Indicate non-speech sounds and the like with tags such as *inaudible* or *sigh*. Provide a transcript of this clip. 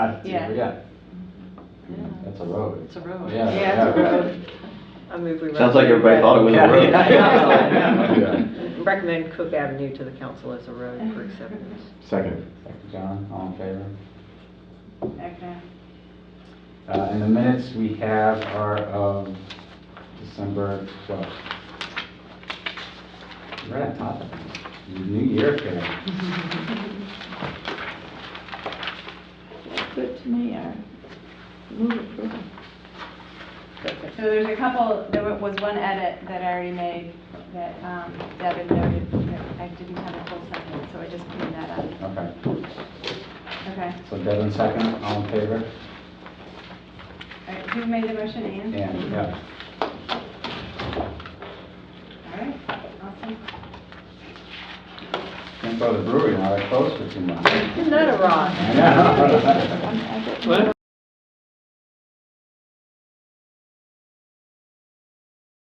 I- Yeah. Yeah, Yeah, that's a road. It's a road. Yeah. Yeah, it's a road. I move we. Sounds like everybody thought it was a Yeah, road. yeah, yeah. *laughs* it. Recommend Cook Avenue to the council as a road for acceptance. Second. Dr. John, all in favor? Okay. Uh, and the minutes we have are of December twelfth. We're on top of it. New year, kid. Good to me, I move approval. So there's a couple, there wa- was one edit that I already made that um, Deb had noted, that I didn't have a full second, so I just cleaned that up. Okay, Okay, so Devin second, all in favor? all right, who made the motion, Anne? And, yeah. All right, awesome. Can't go to the brewery now, they're closed for two months. Isn't that a rock? I know. I'm- *laughs* I get-